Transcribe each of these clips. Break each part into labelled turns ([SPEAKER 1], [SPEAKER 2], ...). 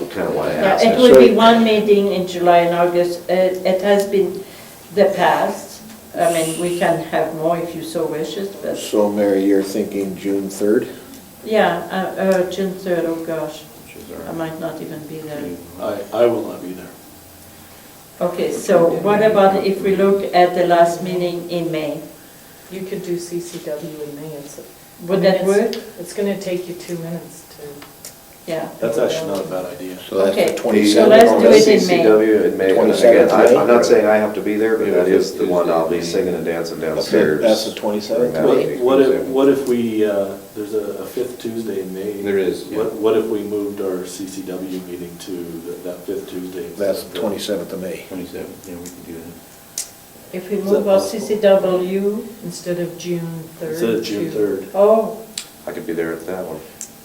[SPEAKER 1] kind of why I
[SPEAKER 2] Yeah,
[SPEAKER 1] asked.
[SPEAKER 2] it
[SPEAKER 1] that.
[SPEAKER 2] will be
[SPEAKER 1] So-
[SPEAKER 2] one meeting in July and August. Uh, It has been the past. I mean, we can have more if you so wishes, but,
[SPEAKER 3] So Mary, you're thinking June 3rd?
[SPEAKER 2] yeah, uh, uh, June 3rd, oh gosh, I might not even be there.
[SPEAKER 4] I, I will not be there.
[SPEAKER 2] Okay, so what about if we look at the last meeting in May?
[SPEAKER 5] You could do CCW in May, it's.
[SPEAKER 2] Would that work?
[SPEAKER 5] It's gonna take you two minutes to.
[SPEAKER 2] Yeah.
[SPEAKER 4] That's actually not a bad idea.
[SPEAKER 3] So that's
[SPEAKER 2] Okay,
[SPEAKER 3] the
[SPEAKER 2] so
[SPEAKER 3] 27th.
[SPEAKER 2] let's do it in May.
[SPEAKER 1] CCW in May, and again,
[SPEAKER 3] 27th
[SPEAKER 1] I- I'm
[SPEAKER 3] May?
[SPEAKER 1] not saying I have to be there, but
[SPEAKER 6] Yeah,
[SPEAKER 1] that
[SPEAKER 6] it
[SPEAKER 1] is
[SPEAKER 6] is
[SPEAKER 1] the one I'll be
[SPEAKER 6] Tuesday.
[SPEAKER 1] singing and dancing
[SPEAKER 3] Okay,
[SPEAKER 1] downstairs.
[SPEAKER 3] That's the 27th.
[SPEAKER 1] That would
[SPEAKER 3] May.
[SPEAKER 1] be
[SPEAKER 4] What if,
[SPEAKER 1] Tuesday.
[SPEAKER 4] what if we, uh, there's a a fifth Tuesday in May?
[SPEAKER 6] There is, yeah.
[SPEAKER 4] What, what if we moved our CCW meeting to th- that fifth Tuesday? instead
[SPEAKER 3] That's
[SPEAKER 4] of
[SPEAKER 3] the 27th of May.
[SPEAKER 6] Twenty-seven, yeah, we can do that.
[SPEAKER 2] If we
[SPEAKER 4] Is that
[SPEAKER 2] move our
[SPEAKER 4] possible?
[SPEAKER 2] CCW,
[SPEAKER 5] Instead of June third.
[SPEAKER 4] Instead of June
[SPEAKER 5] to-
[SPEAKER 4] third.
[SPEAKER 2] oh,
[SPEAKER 1] I could be there at that one.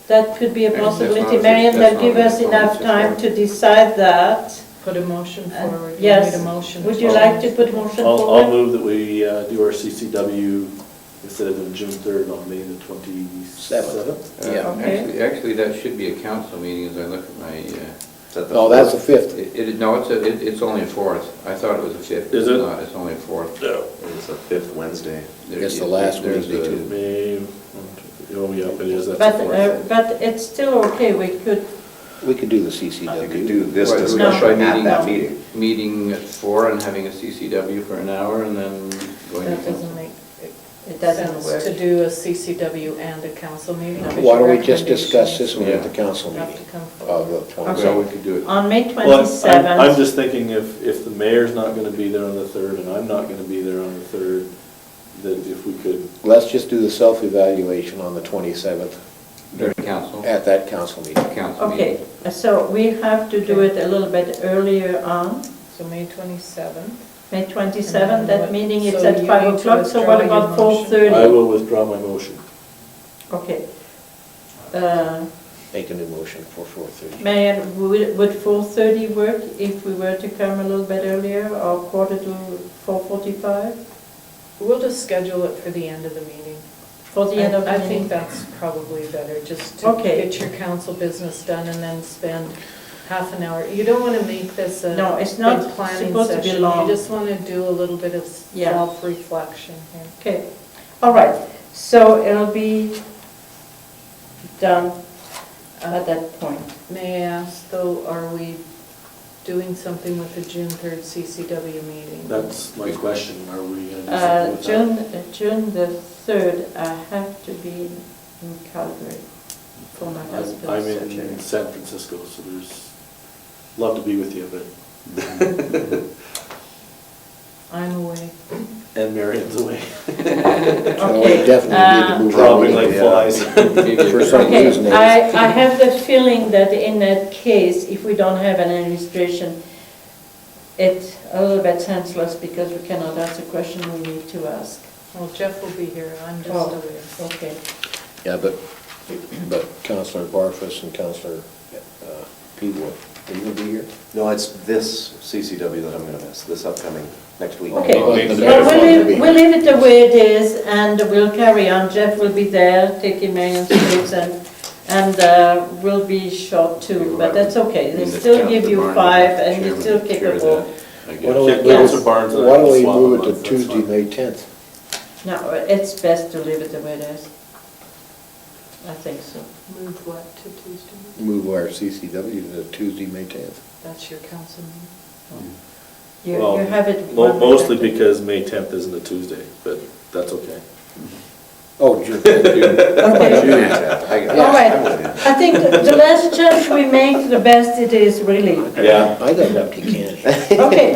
[SPEAKER 2] that could be a
[SPEAKER 6] That's- that's
[SPEAKER 2] possibility.
[SPEAKER 6] not-
[SPEAKER 2] Marian,
[SPEAKER 6] that's
[SPEAKER 2] that give
[SPEAKER 6] not-
[SPEAKER 2] us
[SPEAKER 6] that's
[SPEAKER 2] enough
[SPEAKER 6] not-
[SPEAKER 2] time to decide that.
[SPEAKER 5] Put a motion
[SPEAKER 2] And-
[SPEAKER 5] forward. You
[SPEAKER 2] Uh, yes.
[SPEAKER 5] need a motion.
[SPEAKER 2] Would you
[SPEAKER 5] forward.
[SPEAKER 2] like to put motion
[SPEAKER 4] I'll,
[SPEAKER 2] forward?
[SPEAKER 4] I'll move that we uh, do our CCW instead of on June third on May the twenty-seventh.
[SPEAKER 3] Yeah.
[SPEAKER 6] Uh,
[SPEAKER 2] Okay.
[SPEAKER 6] Actually, actually, that should be a council meeting as I look at my, uh,
[SPEAKER 1] Is that the
[SPEAKER 3] No, that's the
[SPEAKER 1] fourth?
[SPEAKER 3] 5th.
[SPEAKER 6] it, it- no, it's, a- it- it's only a fourth. I thought it was a fifth.
[SPEAKER 4] Is
[SPEAKER 6] It's
[SPEAKER 4] it?
[SPEAKER 6] not. It's only a fourth.
[SPEAKER 1] It's the fifth Wednesday.
[SPEAKER 6] There-
[SPEAKER 3] It's the last
[SPEAKER 6] there's
[SPEAKER 3] Wednesday,
[SPEAKER 6] a-
[SPEAKER 3] too.
[SPEAKER 4] May, one, two, oh, yeah, it is, that's
[SPEAKER 2] But,
[SPEAKER 4] the
[SPEAKER 2] uh,
[SPEAKER 4] fourth.
[SPEAKER 2] but it's still okay, we could,
[SPEAKER 3] We could do the
[SPEAKER 1] You could do
[SPEAKER 3] CCW.
[SPEAKER 1] this
[SPEAKER 6] Right, we
[SPEAKER 1] discussion
[SPEAKER 6] should
[SPEAKER 1] at
[SPEAKER 6] meeting-
[SPEAKER 1] that meeting.
[SPEAKER 6] Meeting at four and having a CCW for an hour and then going to
[SPEAKER 5] That doesn't
[SPEAKER 6] council.
[SPEAKER 5] make
[SPEAKER 2] it doesn't
[SPEAKER 5] sense to
[SPEAKER 2] work.
[SPEAKER 5] do a CCW and a council meeting. because
[SPEAKER 3] Why don't
[SPEAKER 5] your
[SPEAKER 3] we just discuss this one at the
[SPEAKER 6] Yeah.
[SPEAKER 3] council
[SPEAKER 5] Have to
[SPEAKER 3] meeting
[SPEAKER 5] come
[SPEAKER 3] of
[SPEAKER 5] forward.
[SPEAKER 3] the
[SPEAKER 4] Oh,
[SPEAKER 6] Well,
[SPEAKER 3] 27th?
[SPEAKER 6] we could do it.
[SPEAKER 2] On May
[SPEAKER 4] Well, I'm- I'm- I'm
[SPEAKER 2] 27th,
[SPEAKER 4] just thinking if, if the mayor's not gonna be there on the third and I'm not gonna be there on the third, that if we could
[SPEAKER 3] Let's just do the self-evaluation on the 27th
[SPEAKER 6] During council,
[SPEAKER 3] at that council meeting.
[SPEAKER 6] council meeting.
[SPEAKER 2] okay, so we have to do it a little bit earlier on,
[SPEAKER 5] So May twenty-seventh.
[SPEAKER 2] May 27th, that meeting is
[SPEAKER 5] uh, So
[SPEAKER 2] at
[SPEAKER 5] you
[SPEAKER 2] 5
[SPEAKER 5] need to
[SPEAKER 2] o'clock, so what
[SPEAKER 5] withdraw your
[SPEAKER 2] about
[SPEAKER 5] motion.
[SPEAKER 4] I
[SPEAKER 2] 4:30?
[SPEAKER 4] will withdraw my motion.
[SPEAKER 2] Okay. Uh,
[SPEAKER 3] Make a new motion for 4:30.
[SPEAKER 2] Marian, would would 4:30 work if we were to come a little bit earlier, or quarter to 4:45?
[SPEAKER 5] We'll just schedule it for the end of the meeting.
[SPEAKER 2] For the end of the
[SPEAKER 5] I- I
[SPEAKER 2] meeting?
[SPEAKER 5] think that's probably better, just to
[SPEAKER 2] Okay.
[SPEAKER 5] get your council business done and then spend half an hour. You don't want to make this a
[SPEAKER 2] No, it's not
[SPEAKER 5] big planning
[SPEAKER 2] supposed to be
[SPEAKER 5] session.
[SPEAKER 2] long.
[SPEAKER 5] You just want to do a little bit of
[SPEAKER 2] Yeah.
[SPEAKER 5] self-reflection here.
[SPEAKER 2] Okay, all right, so it'll be done at that point.
[SPEAKER 5] May I ask, though, are we doing something with the June 3rd CCW meeting?
[SPEAKER 4] That's my question, are we going to
[SPEAKER 2] Uh,
[SPEAKER 4] do
[SPEAKER 2] June,
[SPEAKER 4] something with
[SPEAKER 2] uh, June the 3rd, I have to be in Calgary for my
[SPEAKER 4] that?
[SPEAKER 2] husband's
[SPEAKER 4] I'm
[SPEAKER 2] surgery.
[SPEAKER 4] in San Francisco, so there's, love to be with you,
[SPEAKER 5] I'm away.
[SPEAKER 4] but, and Marion's away,
[SPEAKER 3] So we
[SPEAKER 2] Okay,
[SPEAKER 3] definitely need to
[SPEAKER 2] uh,
[SPEAKER 3] move on.
[SPEAKER 4] dropping like
[SPEAKER 3] Yeah.
[SPEAKER 4] flies.
[SPEAKER 6] Maybe-
[SPEAKER 3] For some
[SPEAKER 2] Okay,
[SPEAKER 3] reason,
[SPEAKER 2] I, I have the feeling that in that case, if we don't have an administration, it's a little bit senseless because we cannot ask the question we need to ask.
[SPEAKER 5] Well, Jeff will be here, I'm just
[SPEAKER 2] Oh.
[SPEAKER 5] away.
[SPEAKER 2] Okay.
[SPEAKER 3] Yeah, but, but Counselor Barfus and Counselor uh, Peewood, are you going to be here?
[SPEAKER 1] No, it's this CCW that I'm going to miss, this upcoming, next week.
[SPEAKER 2] Okay,
[SPEAKER 3] Oh, the
[SPEAKER 2] well,
[SPEAKER 3] next one
[SPEAKER 2] we'll
[SPEAKER 3] will be-
[SPEAKER 2] leave, we'll leave it the way it is, and we'll carry on. Jeff will be there, taking Marion's place, and, and uh, we'll be short too, but that's okay. They
[SPEAKER 6] And the
[SPEAKER 2] still give
[SPEAKER 6] council
[SPEAKER 2] you
[SPEAKER 6] barn,
[SPEAKER 2] five, and you
[SPEAKER 6] chairman
[SPEAKER 2] still kick
[SPEAKER 6] chair
[SPEAKER 2] a ball.
[SPEAKER 6] that, I guess.
[SPEAKER 3] Why don't we
[SPEAKER 4] Yeah,
[SPEAKER 3] move it-
[SPEAKER 4] Counselor Barnes and I
[SPEAKER 3] Why don't we
[SPEAKER 4] swap them
[SPEAKER 3] move it
[SPEAKER 4] up,
[SPEAKER 3] to
[SPEAKER 4] that's
[SPEAKER 3] Tuesday,
[SPEAKER 4] fine.
[SPEAKER 3] May 10th?
[SPEAKER 2] No, it's best to leave it the way it is. I think so.
[SPEAKER 5] Moved what, to Tuesday?
[SPEAKER 3] Move our CCW to Tuesday, May 10th.
[SPEAKER 5] That's your council meeting?
[SPEAKER 2] You
[SPEAKER 4] Well,
[SPEAKER 2] you have it.
[SPEAKER 4] mo-
[SPEAKER 2] one way
[SPEAKER 4] Mostly
[SPEAKER 2] after.
[SPEAKER 4] because May 10th isn't a Tuesday, but that's okay.
[SPEAKER 3] Oh, June. June.
[SPEAKER 2] Okay.
[SPEAKER 1] June 10th. I got it.
[SPEAKER 2] All right.
[SPEAKER 1] I'm with you.
[SPEAKER 2] I think the less change we make, the best it is, really.
[SPEAKER 4] Yeah.
[SPEAKER 3] I got an empty can.
[SPEAKER 2] Okay.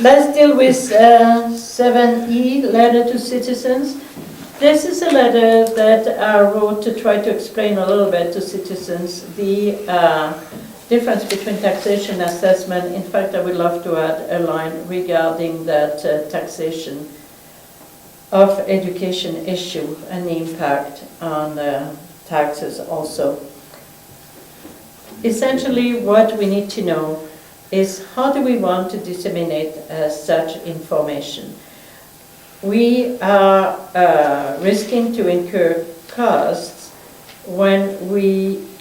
[SPEAKER 2] Let's deal with uh, 7E, letter to citizens. This is a letter that I wrote to try to explain a little bit to citizens the uh, difference between taxation and assessment. In fact, I would love to add a line regarding that uh, taxation of education issue and the impact on uh, taxes also. Essentially, what we need to know is how do we want to disseminate uh, such information? We are uh, risking to incur costs when we